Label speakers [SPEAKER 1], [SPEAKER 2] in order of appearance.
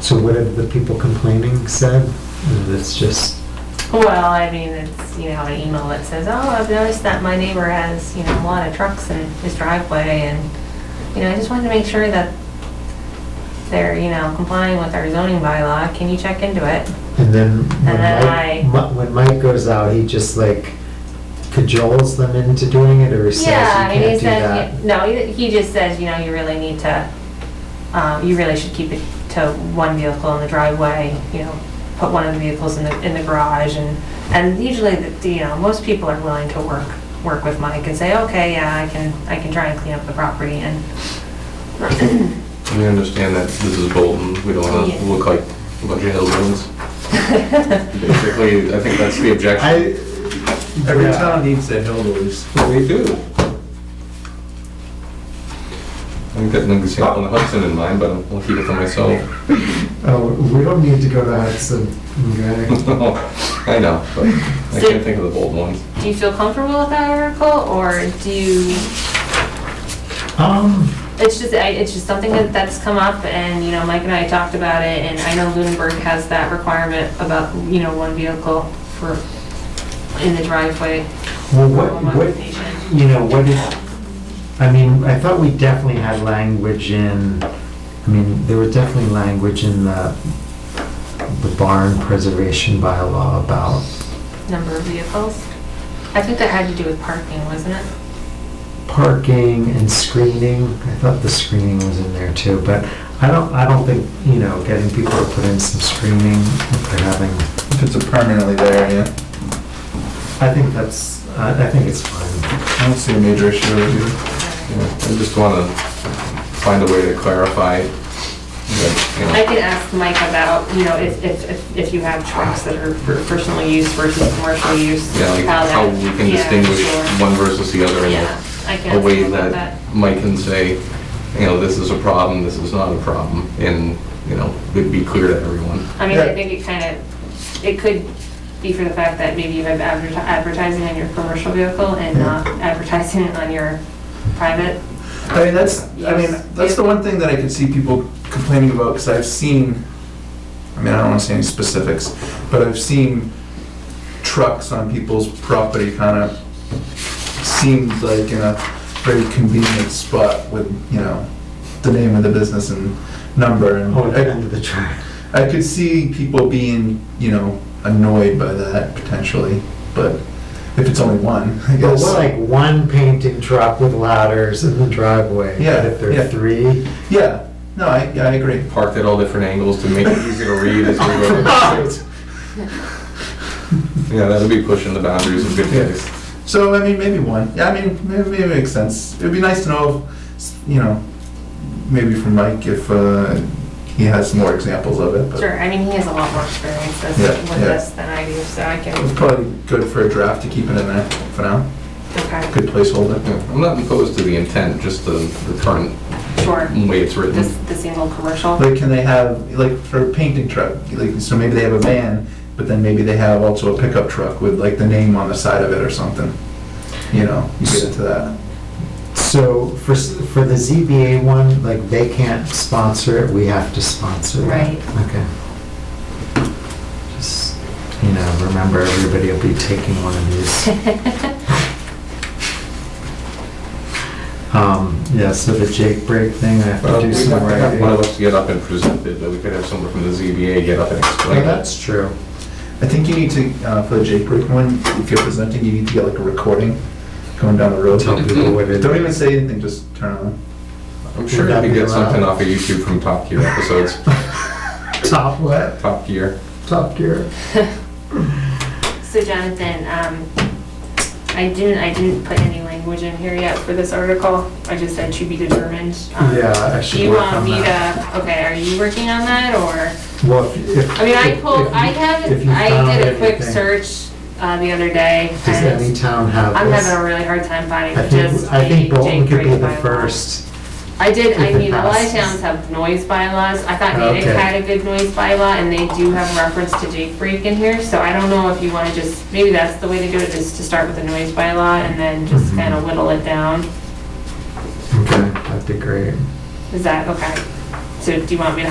[SPEAKER 1] So what have the people complaining said? And It's just,
[SPEAKER 2] Well, I mean, it's, you know, an email that says, oh, I've noticed that my neighbor has, you know, a lot of trucks in his driveway and, you know, I just wanted to make sure that they're, you know, complying with our zoning bylaw. Can you check into it?
[SPEAKER 1] and then when
[SPEAKER 2] And then I-
[SPEAKER 1] Mike, Mi- when Mike goes out, he just like cajoles them into doing it, or he says you
[SPEAKER 2] Yeah, I mean, he
[SPEAKER 1] can't do
[SPEAKER 2] says,
[SPEAKER 1] that?
[SPEAKER 2] no, he he just says, you know, you really need to, um, you really should keep it to one vehicle in the driveway, you know, put one of the vehicles in the, in the garage and, and usually, the- the, you know, most people are willing to work, work with Mike and say, okay, yeah, I can, I can try and clean up the property and,
[SPEAKER 3] We understand that this is Bolton, we don't want
[SPEAKER 2] Yeah.
[SPEAKER 3] to look like a bunch of hillbillies. Basically, I think that's the objection.
[SPEAKER 1] I,
[SPEAKER 4] Every
[SPEAKER 1] Yeah.
[SPEAKER 4] town needs their hillbillies.
[SPEAKER 3] We do. I think that an example in Hudson in mind, but I'll keep it for myself.
[SPEAKER 1] oh, we don't need to go to Hudson, okay?
[SPEAKER 3] I know, but I can't think of the bold ones.
[SPEAKER 2] do you feel comfortable with that article or do you,
[SPEAKER 1] Um,
[SPEAKER 2] it's just, I, it's just something that, that's come up and, you know, Mike and I talked about it and I know Lunenburg has that requirement about, you know, one vehicle for, in the driveway.
[SPEAKER 1] well,
[SPEAKER 2] for
[SPEAKER 1] what,
[SPEAKER 2] home
[SPEAKER 1] what,
[SPEAKER 2] occupation.
[SPEAKER 1] you know, what did, I mean, I thought we definitely had language in, I mean, there was definitely language in the, the barn preservation bylaw about,
[SPEAKER 2] Number of vehicles? I think that had to do with parking, wasn't it?
[SPEAKER 1] parking and screening. I thought the screening was in there too, but I don't, I don't think, you know, getting people to put in some screening, if they're having,
[SPEAKER 4] If it's permanently there, yeah.
[SPEAKER 1] I think that's, I, I think it's fine.
[SPEAKER 3] I don't see a major issue with it. Yeah, I just want to find a way to clarify that, you know.
[SPEAKER 2] I can ask Mike about, you know, if, if, if- if you have trucks that are for personal use versus commercial use.
[SPEAKER 3] Yeah, like how
[SPEAKER 2] that-
[SPEAKER 3] we can
[SPEAKER 2] yeah,
[SPEAKER 3] distinguish
[SPEAKER 2] sure.
[SPEAKER 3] one versus the other in
[SPEAKER 2] Yeah,
[SPEAKER 3] a-
[SPEAKER 2] I can
[SPEAKER 3] a
[SPEAKER 2] ask
[SPEAKER 3] way
[SPEAKER 2] him about
[SPEAKER 3] that
[SPEAKER 2] that.
[SPEAKER 3] Mike can say, you know, this is a problem, this is not a problem, and, you know, it'd be clear to everyone.
[SPEAKER 2] I mean, I think it kind of, it could be for the fact that maybe you have adverti- advertising on your commercial vehicle and not advertising on your private.
[SPEAKER 4] I mean, that's, I mean, that's the one thing that I could see people complaining about, because I've seen, I mean, I don't want to say any specifics, but I've seen trucks on people's property kind of seemed like in a very convenient spot with, you know, the name of the business and number and.
[SPEAKER 1] Oh, end of the try.
[SPEAKER 4] I could see people being, you know, annoyed by that potentially, but if it's only one, I
[SPEAKER 1] Well,
[SPEAKER 4] guess.
[SPEAKER 1] we're like one painting truck with ladders in the driveway. but
[SPEAKER 4] Yeah,
[SPEAKER 1] If there
[SPEAKER 4] yeah.
[SPEAKER 1] are three,
[SPEAKER 4] Yeah, no, I, yeah, I agree.
[SPEAKER 3] Parked at all different angles to make it easy to read as we go. Yeah, that'd be pushing the boundaries of good taste.
[SPEAKER 4] So, I mean, maybe one. Yeah, I mean, maybe, maybe it makes sense. It'd be nice to know, if, you know, maybe from Mike if uh, he has more examples of
[SPEAKER 1] Uh,
[SPEAKER 4] it. But
[SPEAKER 2] Sure, I mean, he has a lot more experience with
[SPEAKER 4] Yeah,
[SPEAKER 2] with
[SPEAKER 4] yeah.
[SPEAKER 2] this than I do, so I can,
[SPEAKER 4] It's probably good for a draft to keep it in there for now.
[SPEAKER 2] okay,
[SPEAKER 4] Good placeholder.
[SPEAKER 3] Yeah, I'm not opposed to the intent, just the, the current
[SPEAKER 2] sure.
[SPEAKER 1] Mm.
[SPEAKER 3] way it's written.
[SPEAKER 2] This, the single commercial?
[SPEAKER 4] Like, can they have, like, for a painting truck, like, so maybe they have a van, but then maybe they have also a pickup truck with, like, the name on the side of it or something. You know, you get into that.
[SPEAKER 1] so for, s- for the ZBA one, like they can't sponsor it, we have to sponsor it.
[SPEAKER 2] Right.
[SPEAKER 1] Okay. Just, you know, remember everybody will be taking one of these. Um, yeah, so the Jake break thing, I have
[SPEAKER 3] Well,
[SPEAKER 1] to do
[SPEAKER 3] we'd
[SPEAKER 1] some
[SPEAKER 3] have to have
[SPEAKER 1] writing.
[SPEAKER 3] One of us get up and present it, but we could have someone from the ZBA get up and explain
[SPEAKER 1] Well,
[SPEAKER 3] it.
[SPEAKER 1] that's true.
[SPEAKER 4] I think you need to, uh, for the Jake Brick one, if you're presenting, you need to get like a recording going down the road.
[SPEAKER 1] Tell people what it
[SPEAKER 4] Don't even
[SPEAKER 1] is.
[SPEAKER 4] say anything, just turn it on.
[SPEAKER 3] I'm
[SPEAKER 1] Would
[SPEAKER 3] sure
[SPEAKER 1] that
[SPEAKER 3] you could
[SPEAKER 1] be
[SPEAKER 3] get something
[SPEAKER 1] allowed?
[SPEAKER 3] off of YouTube from Top Gear episodes,
[SPEAKER 1] Top what?
[SPEAKER 3] Top Gear.
[SPEAKER 1] Top gear.
[SPEAKER 2] So Jonathan, um, I didn't, I didn't put any language in here yet for this article. I just said to be determined. Um,
[SPEAKER 1] Yeah, I
[SPEAKER 2] Do
[SPEAKER 1] should
[SPEAKER 2] you
[SPEAKER 1] work on
[SPEAKER 2] want me
[SPEAKER 1] that.
[SPEAKER 2] to, okay, are you working on that or?
[SPEAKER 1] Well, if- if.
[SPEAKER 2] I mean, I
[SPEAKER 1] if-
[SPEAKER 2] pulled,
[SPEAKER 1] if you-
[SPEAKER 2] I have,
[SPEAKER 1] if you found
[SPEAKER 2] I did a quick
[SPEAKER 1] anything,
[SPEAKER 2] search, uh, the other day.
[SPEAKER 1] Does
[SPEAKER 2] and
[SPEAKER 1] any town have
[SPEAKER 2] I'm
[SPEAKER 1] this?
[SPEAKER 2] having a really hard time finding
[SPEAKER 1] I
[SPEAKER 2] just
[SPEAKER 1] think, I think
[SPEAKER 2] the
[SPEAKER 1] Bolton
[SPEAKER 2] Jake
[SPEAKER 1] could be
[SPEAKER 2] Drake
[SPEAKER 1] the
[SPEAKER 2] bylaw.
[SPEAKER 1] first.
[SPEAKER 2] I did, I
[SPEAKER 1] If it
[SPEAKER 2] mean, a lot of
[SPEAKER 1] passes.
[SPEAKER 2] towns have noise bylaws. I thought Natick
[SPEAKER 1] Okay.
[SPEAKER 2] had a good noise bylaw, and they do have reference to Jake Break in here, so I don't know if you wanna just, maybe that's the way to do it, is to start with a noise bylaw and then just
[SPEAKER 1] Mhm.
[SPEAKER 2] kinda whittle it down.
[SPEAKER 1] Okay, that'd be great.
[SPEAKER 2] Is that, okay? So do you want me to